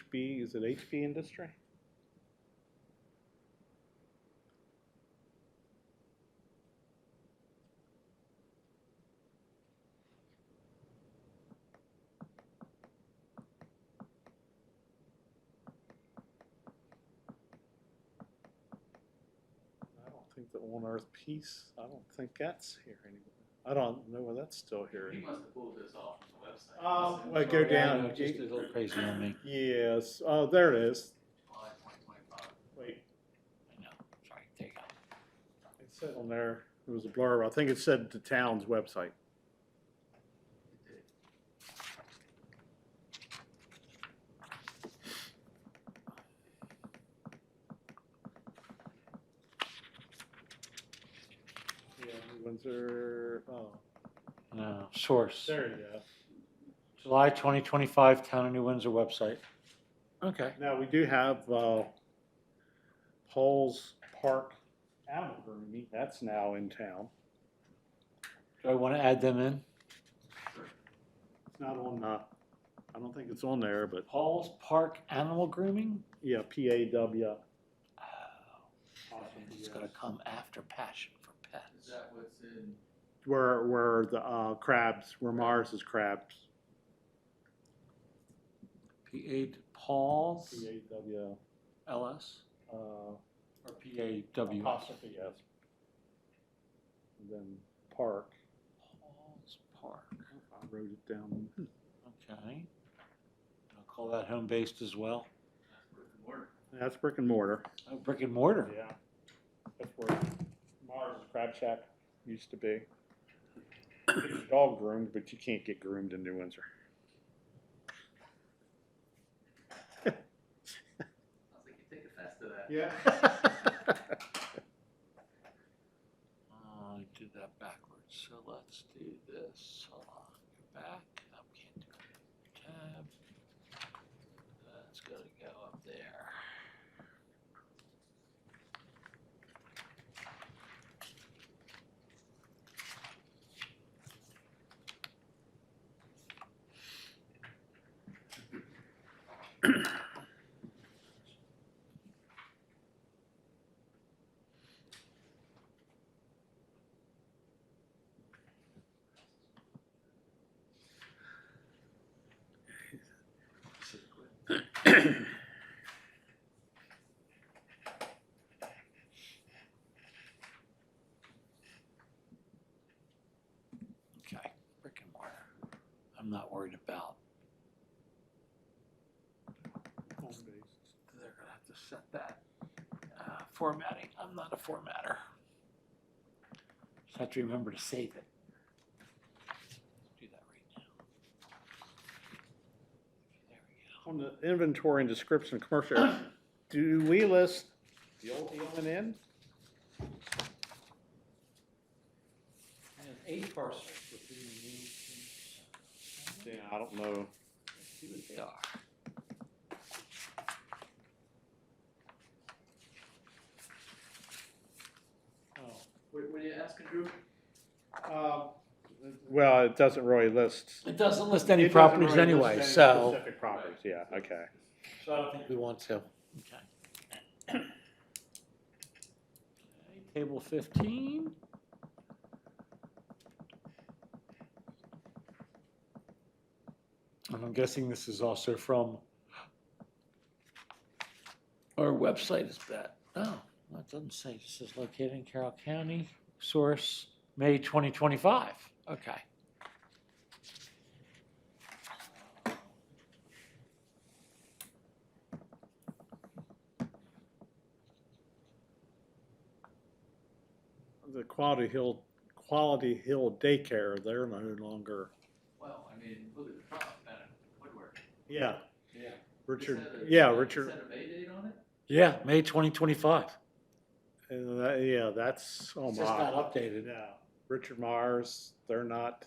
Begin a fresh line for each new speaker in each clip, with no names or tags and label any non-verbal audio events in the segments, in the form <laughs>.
HB, is it HB Industry? I don't think the One Earth Peace, I don't think that's here anymore. I don't know whether that's still here.
He must have pulled this off from the website.
Oh,
This is
well, go
on
Yeah, I
down.
know, Just a little
<clears throat>
crazy on me.
Yes, oh, there it is.
July 2025.
Wait,
I know. Sorry, there you go.
it said on there, it was a blurb, I think it said the town's website. Yeah, Windsor, oh,
No, source,
there you go.
July 2025, Town of New Windsor website. Okay.
Now, we do have, uh, Paul's Park Animal Grooming, that's now in town.
Do I want to add them in?
It's not on, uh, I don't think it's on there, but,
Paul's Park Animal Grooming?
yeah, PAW.
Oh, It's gonna come after Passion for
Is
Pets.
that what's in?
Where, where the, uh, crabs, where Mars is crabs.
P A Paul's
PAW,
L S
uh,
or P A W?
apostrophe S. And Then park,
Paul's Park,
I wrote it down.
okay. I'll call that home based as well.
That's brick and mortar.
That's brick and mortar.
Oh, Brick and mortar.
Yeah. That's where Mars Crab Shack used to be. Get your dog groomed, but you can't get groomed in New Windsor.
I was like, you take offense to
<laughs>
that.
Yeah.
Uh, I did that backwards, so let's do this, hold on, go back, I can't do it, tab. That's gotta go up there. Okay, brick and mortar, I'm not worried about, they're gonna have to set that, uh, formatting, I'm not a formatter. Just have to remember to save it. Do that right now. There we go.
On the inventory and description of commercial, areas, do we list the old E and N?
And eight parcels within the means.
Yeah, I don't know.
See what they are. Oh,
What, what are you asking, Drew?
Um, Well, it doesn't really list.
It doesn't list
It
any
doesn't
properties
really list
anyway,
any
so.
Specific properties, yeah, okay.
So I don't think we want to. Okay. Okay, Table fifteen. And I'm guessing this is also from our website is that, oh, no, it doesn't say, it says located in Carroll County, source, May twenty twenty-five, okay.
The Quality Hill, Quality Hill Daycare, they're no longer.
Well, I mean, look at the truck, man, woodwork.
Yeah.
Yeah.
Richard,
Is that a-
yeah,
is
Richard,
that a May date on it?
Yeah, May twenty twenty-five.
and that- yeah, that's, oh
It's just not
my.
updated.
Yeah, Richard Myers, they're not,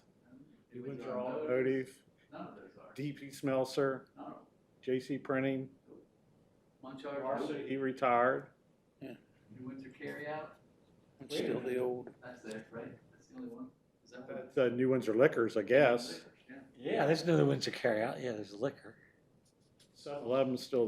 Do we
Windsor
know?
Automotive,
None of those are.
DP Smelser,
None of them.
JC Printing,
Munchausen,
he retired.
New Windsor Carryout,
It's still the old.
that's there, right? That's the only one. Is that what?
That's uh, New Windsor Liquors, I guess.
Yeah.
Yeah, there's another Windsor carryout. Yeah, there's liquor.
A lot of them's still there.